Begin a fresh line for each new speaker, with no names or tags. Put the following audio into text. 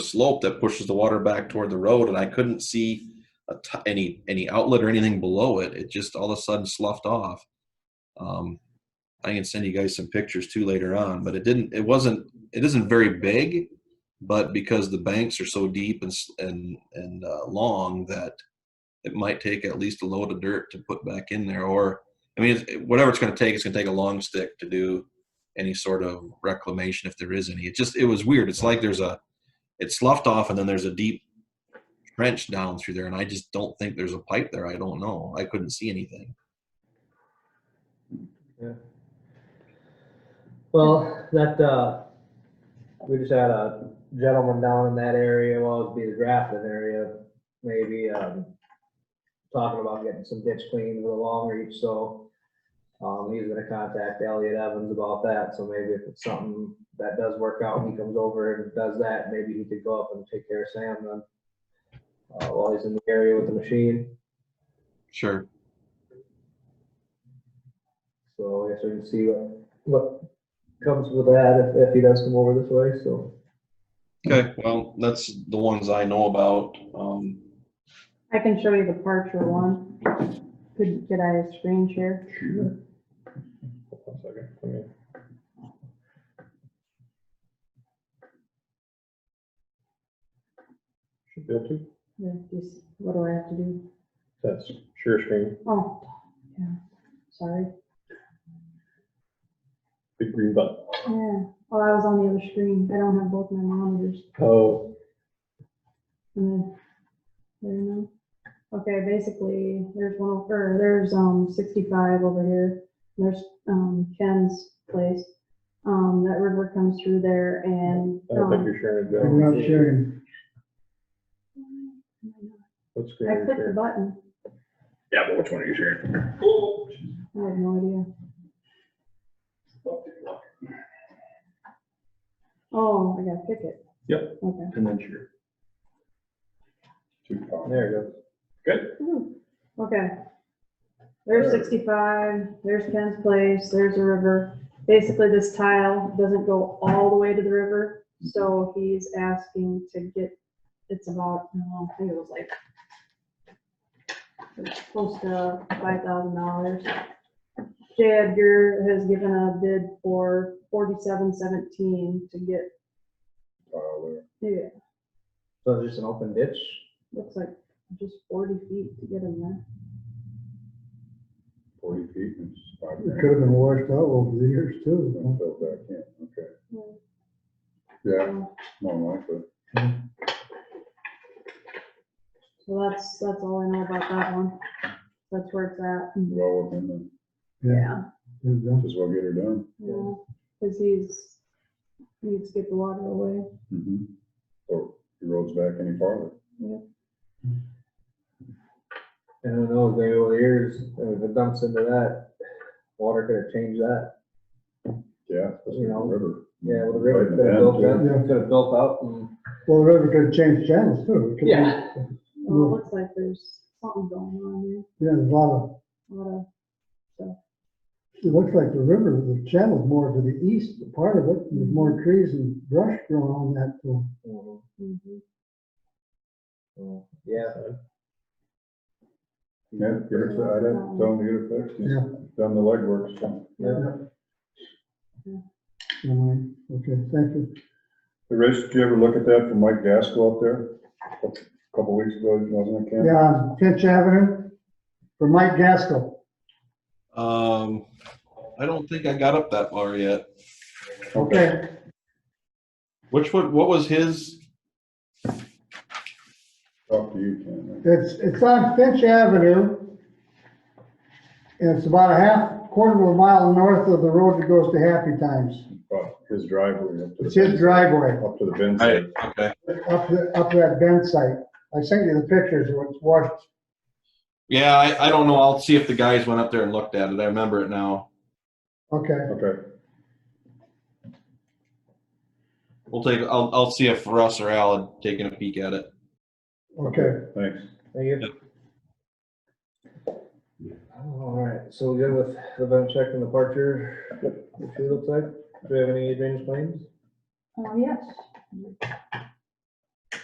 slope that pushes the water back toward the road, and I couldn't see a t- any any outlet or anything below it. It just all of a sudden sloughed off. Um, I can send you guys some pictures too later on, but it didn't. It wasn't. It isn't very big, but because the banks are so deep and s- and and uh, long that it might take at least a load of dirt to put back in there, or I mean, it's- whatever it's going to take, it's going to take a long stick to do any sort of reclamation if there is any. It just it was weird. It's like there's a it's sloughed off and then there's a deep trench down through there and I just don't think there's a pipe there. I don't know. I couldn't see anything.
Well, that, uh, we just had a gentleman down in that area, well, it'd be the Grafton area, maybe, um, talking about getting some ditch cleaned with a long reach, so, um, he's gonna contact Elliot Evans about that, so maybe if it's something that does work out, and he comes over and does that, maybe he could go up and take care of Sam then. Uh, while he's in the area with the machine,
Sure.
so I guess we can see what, what comes with that, if, if he does come over this way, so.
Okay. Well, that's the ones I know about. Um,
I can show you the Parcher one. Could, could I screen share?
One second, let me- Should be able to,
Yeah, just- What do I have to do?
that's share screen,
Oh, yeah, sorry.
big green button.
Yeah, oh, I was on the other screen. I don't have both my monitors.
Oh,
And then, there you go. Okay, basically, there's one over, there's, um, sixty-five over here. There's, um, Ken's place. Um, that river comes through there and,
I don't think
um,
you're sharing it,
I'm
Joe.
not sharing.
What screen
um, I
are you
clicked the
sharing?
button.
Yeah, but which one are you sharing?
I have no idea. Oh, I gotta pick it.
Yep.
Okay.
And then share. Two columns.
There you
Good,
Ooh, Okay. There's
Sure.
sixty-five, there's Ken's place, there's a river. Basically, this tile doesn't go all the way to the river, so he's asking to get, it's about, no, I think it was like it's close to five thousand dollars. J Edgar has given a bid for forty-seven seventeen to get,
Uh, there.
yeah,
go. So just an open ditch?
looks like just forty feet to get in there.
forty feet and it's five
It
grand,
could have been washed out over the years
then
too.
fill back in, okay.
Yeah.
Yeah,
So-
more likely.
So that's, that's all I know about that one. That's where it's at.
Well, within the-
Yeah.
It was
might as well get her done.
Yeah, cause he's, needs to get the water away.
Mm-hmm. So the road's back any farther.
And who knows, maybe over the years, uh, if it dumps into that, water could have changed that.
Yeah, that's
You
the
know,
river.
Yeah, well, the river
Right
could have built
in the end,
yeah.
up, could have built up and.
Well, the river could have changed channels too. It could be-
Well, it looks like there's something going on
Yeah, there's a lot of,
there. A lot of-
it looks like the river, the channel's more to the east, part of it, and there's more trees and brush growing on that. uh,
Mhm,
mhm.
mhm. Yeah.
too. Yeah, get her, I didn't tell them to get it fixed.
Yeah.
He's Done the legwork, so.
Yeah.
never mind. Okay, thank you.
Hey, Rich, did you ever look at that from Mike Gaskell up there? A Couple weeks ago, wasn't it, Ken?
Yeah, on Tench Avenue for Mike Gaskell.
um, I don't think I got up that far yet.
Okay,
Which one? What was his?
Talk to you, Ken.
it's, it's on Finch Avenue. And it's about a half, quarter of a mile north of the road that goes to Happy Times.
About his driveway up to the.
It's his driveway.
Up to the bin.
I, okay.
up, the- up that bend site. I sent you the pictures, of what's washed,
Yeah, I, I don't know. I'll see if the guys went up there and looked at it. I remember it now.
okay,
Okay,
We'll take. I'll I'll see if Russ or Al had taken a peek at it.
okay.
thanks.
Thank you. All right, so we good with the bench check and the departure, what she looks like? Do we have any drainage claims?
Oh, yes.